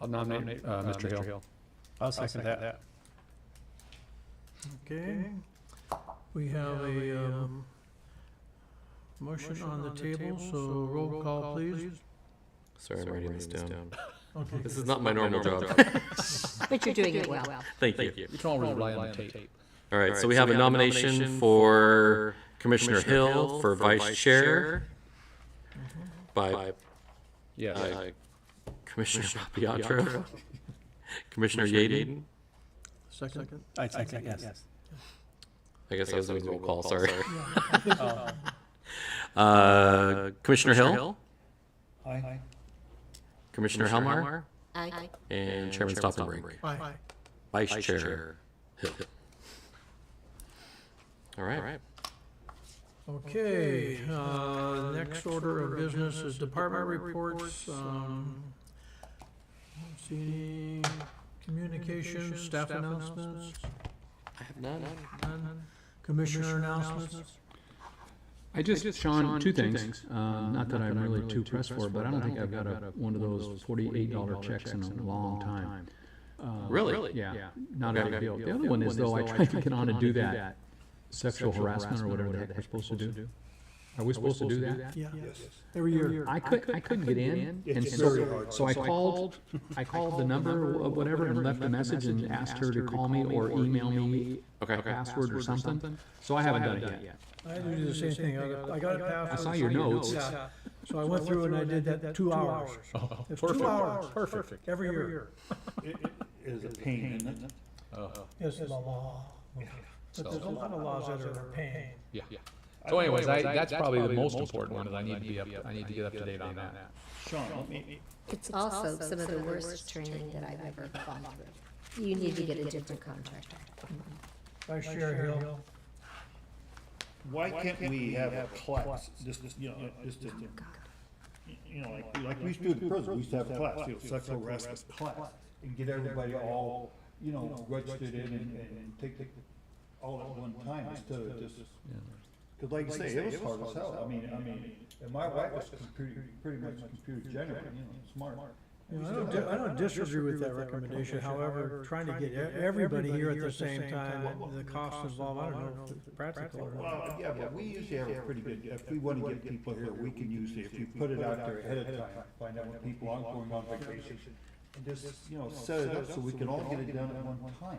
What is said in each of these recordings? I'll nominate uh, Mr. Hill. I'll second that. Okay. We have a, um, motion on the table, so roll call, please. Sorry, I'm writing this down. Okay. This is not my normal job. But you're doing it well. Thank you. You can always rely on the tape. All right, so we have a nomination for Commissioner Hill for vice chair by Yes. uh, Commissioner Papiatro, Commissioner Yaden. Second. I second, yes. I guess I was doing roll call, sorry. Uh, Commissioner Hill, Aye. Commissioner Helmar, Aye. and Chairman Stoffenbrink. Aye. Vice Chair Hill. All right. Okay, uh, next order of business is department reports. um, don't See any communications, staff announcements, I have none. none? Commissioner announcements? I just, Sean, two things. Uh, Not that I'm really too pressed for, but I don't think I've got a- one of those $48 checks in a long time. Really? Yeah, not a Okay. big deal. The other one is though, I tried to get on and do that sexual harassment or whatever the heck we're supposed to do. Are we supposed to do that? Yeah, every year. I couldn't, I couldn't get in. and It's so- very hard. So I called, I called the number, of whatever, and left a message and asked her to call me or email me Okay, okay. password or something. So I haven't done it yet. I had to do the same thing. I got- I got it I passed. saw your notes. Yeah. So I went through and I did that two hours. It's two hours, perfect, every year. Is a pain, isn't it? It's the law. But there's a lot of laws that are a pain. Yeah. So anyways, I, that's probably the most important one, is I need to be up, I need to get up to date on that. Sean, let me, It's also some of the worst training that I've ever gone through. You need to get a different contractor. Vice Chair Hill, why can't we have a class, Oh, just, you know, just, a- you know, like, like we used to do in prison, we used to have a class, you know, sexual harassment class. And get everybody all, you know, registered in and, and and take, the all at one time, instead of just, cause like you say, it was hard as hell, I mean, I mean, and my wife was computer, pretty much computer general, you know, smart. you know, I don't, di- I don't disagree with that recommendation, however, trying to get e- everybody here at the same time, the cost involved, I don't know if it's practical or not. Well, yeah, but we usually have a pretty good, if we wanna get people here, we can usually, if you put it out there ahead of time, find out when people aren't going on vacation. And just, you know, set it up so we can all get it done at one time,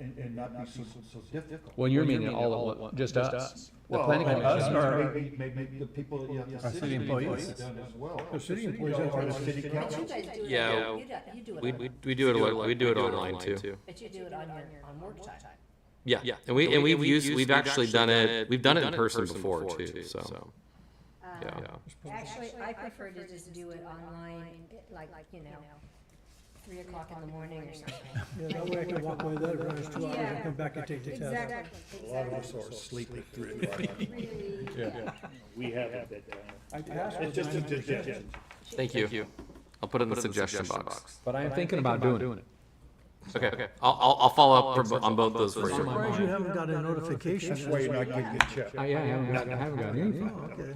and, and not be so, so difficult. Well, you're meaning all of, just us? The Well, planning and commission? us or Maybe, maybe the people, yeah, the city employees done as well. The city employees. Or the city council. Yeah, we, we we do it, we do it online too. But you do it on your, on work time. Yeah, yeah, and we, and we've used, we've actually done it, we've done it in person before too, so. Uh, Yeah, Actually, I prefer to just do it online, like, you know, three o'clock in the morning or something. Yeah, that way I can walk away that, run us two hours and come back and take the test. A lot of us are sleeping through it. We have it. I passed It's with just a nine- suggestion. thank you. I'll put it in the suggestion box. But I am thinking about doing it. Okay, okay, I'll, I'll, I'll follow up for bo- on both those I'm for you. surprised you haven't got a notification. That's why you're not getting a check. I, yeah, I haven't, got- I haven't got anything. Oh, okay.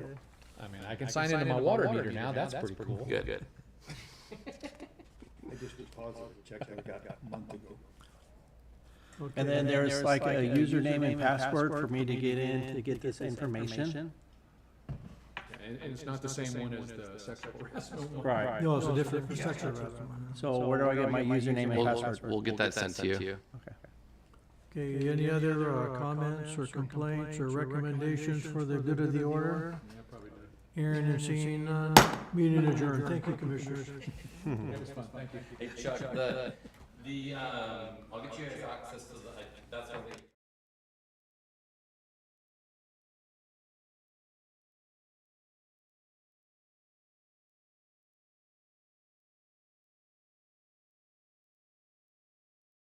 I mean, I can sign into my water meter now, that's pretty cool. Good, good. I just deposited a check I got a month ago. And then there's like a username and password for me to get in to get this information? And, and it's not the same one as the sexual harassment one. Right. No, it's a different section of it. So where do I get my username and We'll, password? we'll- we'll get that sent to you. Okay, any other uh, comments or complaints or recommendations for the good of the order? Hearing and seeing none, meeting adjourned. Thank you, commissioners. Hey Chuck, the, the, um, I'll get you guys access to the, that's what we.